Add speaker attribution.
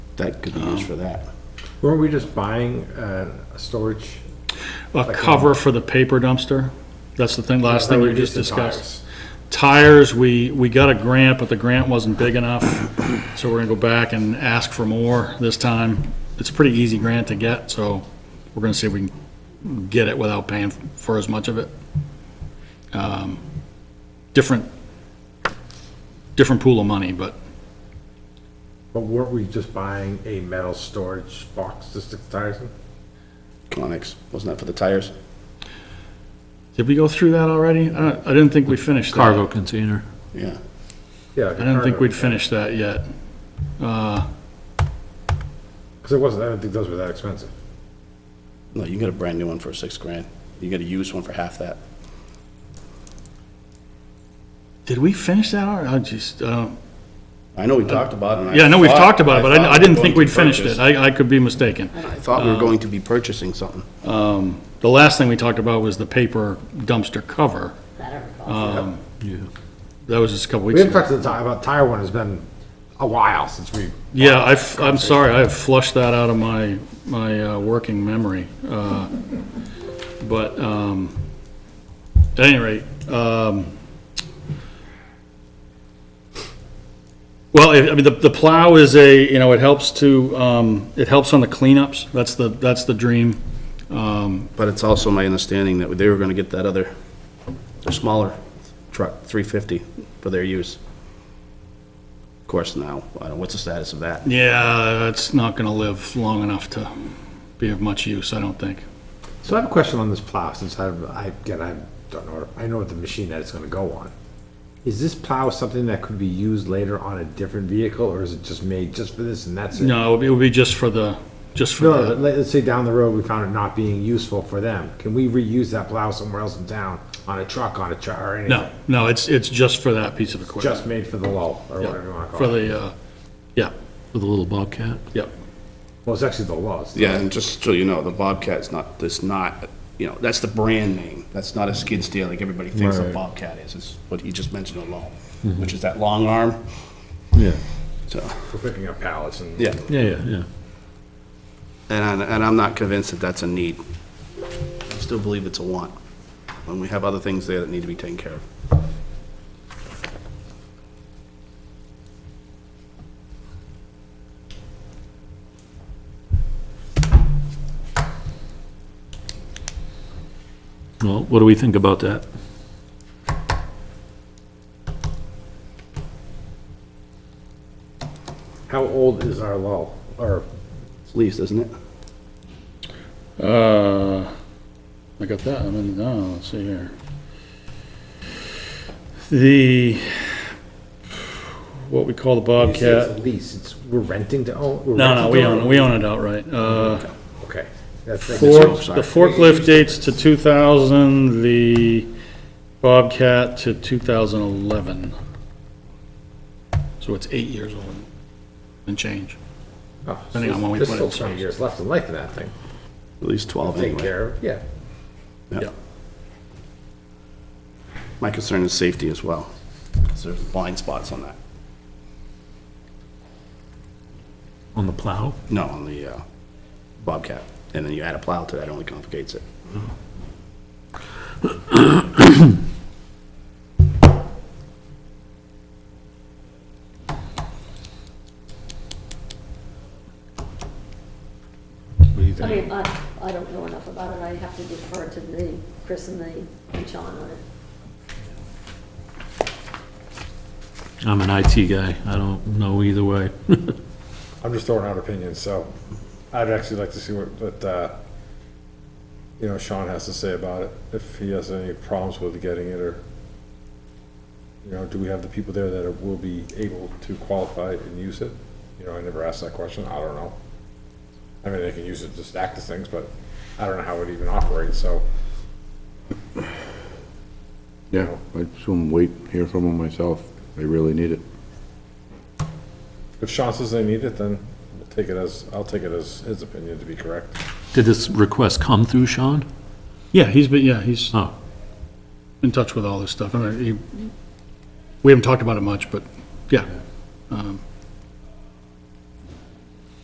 Speaker 1: that could be used for that.
Speaker 2: Weren't we just buying uh, a storage?
Speaker 3: A cover for the paper dumpster? That's the thing, last thing you just
Speaker 2: Reduce the tires.
Speaker 3: discussed. Tires, we, we got a grant, but the grant wasn't big enough, so we're gonna go back and ask for more this time. It's a pretty easy grant to get, so we're gonna see if we can get it without paying for as much of it. Um, Different, different pool of money, but
Speaker 2: But weren't we just buying a metal storage box to stick the tires in?
Speaker 1: Conex, wasn't that for the tires?
Speaker 3: did we go through that already? I don't- I didn't think we finished that.
Speaker 4: Cargo container.
Speaker 1: Yeah.
Speaker 2: Yeah.
Speaker 3: I didn't think we'd finished that yet. Uh,
Speaker 2: Because it wasn't, I didn't think those were that expensive.
Speaker 1: No, you can get a brand new one for six grand. You get a used one for half that.
Speaker 3: Did we finish that already? I just, uh,
Speaker 1: I know we talked about it. and
Speaker 3: yeah, I know we've
Speaker 1: thought-
Speaker 3: talked about it, but I
Speaker 1: thought
Speaker 3: I
Speaker 1: we were
Speaker 3: didn't think
Speaker 1: going
Speaker 3: we'd
Speaker 1: to
Speaker 3: finished it. Uh,
Speaker 1: purchase-
Speaker 3: I, I could be mistaken.
Speaker 1: I thought we were going to be purchasing something.
Speaker 3: The last thing we talked about was the paper dumpster cover. Um,
Speaker 5: That I recall.
Speaker 3: That was just a couple
Speaker 2: We
Speaker 3: weeks
Speaker 2: haven't
Speaker 3: ago.
Speaker 2: talked to the ti- about tire one, it's been a while since we,
Speaker 3: Yeah, I've, I'm sorry, I have flushed that out of my, my uh, working memory. Uh, But, um, at any rate, um, well, I I mean, the, the plow is a, you know, it helps to, um, it helps on the cleanups. That's the, that's the dream. Um,
Speaker 1: But it's also my understanding that they were gonna get that other, smaller truck, 350, for their use. Of course, now, I don't, what's the status of that?
Speaker 3: Yeah, it's not gonna live long enough to be of much use, I don't think.
Speaker 2: so I have a question on this plow, since I, I, again, I don't know, I know the machine that it's gonna go on. Is this plow something that could be used later on a different vehicle, or is it just made just for this and that's it?
Speaker 3: No, it would be- it would be just for the, just for
Speaker 2: No,
Speaker 3: the,
Speaker 2: let- let's say down the road, we found it not being useful for them. Can we reuse that plow somewhere else in town, on a truck, on a truck, or anything?
Speaker 3: no, no, it's, it's just for that piece of equipment.
Speaker 2: Just made for the lull, or whatever you wanna
Speaker 3: For
Speaker 2: call it.
Speaker 3: the, uh, yeah,
Speaker 4: With a little bobcat.
Speaker 3: yep.
Speaker 2: Well, it's actually the lull. it's the-
Speaker 1: Yeah, and just so you know, the Bobcat's not, it's not, you know, that's the brand name. That's not a skid steer like everybody thinks a
Speaker 2: Right.
Speaker 1: Bobcat is. It's what you just mentioned alone, which is that long arm,
Speaker 4: Yeah.
Speaker 1: so.
Speaker 2: For picking up pallets and.
Speaker 1: Yeah.
Speaker 4: Yeah, yeah, yeah.
Speaker 1: And, I- and I'm not convinced that that's a need. I still believe it's a want, when we have other things there that need to be taken care of.
Speaker 4: Well, what do we think about that?
Speaker 2: How old is our lull? Or,
Speaker 1: It's leased, isn't it?
Speaker 3: Uh, I got that, I mean, oh, let's see here. The, what we call the
Speaker 2: you say it's
Speaker 3: Bobcat,
Speaker 2: a lease, it's, we're renting to own? we're
Speaker 3: no, no,
Speaker 2: renting
Speaker 3: we
Speaker 2: to
Speaker 3: own, it. we own it outright. Uh,
Speaker 2: Okay. That's- that's-
Speaker 3: Fork,
Speaker 1: sorry.
Speaker 3: the forklift dates to 2000, the Bobcat to 2011. So it's eight years old and change.
Speaker 2: oh, so
Speaker 3: depending on when we
Speaker 2: There's
Speaker 3: put it
Speaker 2: still
Speaker 3: in
Speaker 2: twenty
Speaker 3: service.
Speaker 2: years left in life of that thing.
Speaker 1: At least 12
Speaker 2: Take
Speaker 1: anyway.
Speaker 2: care of, yeah.
Speaker 1: Yeah. My concern is safety as well, 'cause there's blind spots on that.
Speaker 4: On the plow?
Speaker 1: No, on the uh, Bobcat. And then you add a plow to that, it only complicates it.
Speaker 5: I mean, I, I don't know enough about it, I have to defer to the, Chris and the, and Sean on it.
Speaker 4: I'm an IT guy. I don't know either way.
Speaker 2: I'm just throwing out opinions, so I'd actually like to see what, what, uh, you know, Sean has to say about it, if he has any problems with getting it, or, you know, do we have the people there that are- will be able to qualify and use it? You know, I never asked that question, I don't know. I mean, they can use it to stack the things, but I don't know how it even operates, so,
Speaker 6: Yeah, I assume wait, hear from them myself. They really need it.
Speaker 2: if Sean says they need it, then we'll take it as, I'll take it as his opinion to be correct.
Speaker 4: Did this request come through, Sean?
Speaker 3: Yeah, he's been, yeah, he's
Speaker 4: Oh,
Speaker 3: in touch with all this stuff. I mean, he, we haven't talked about it much, but yeah. Um,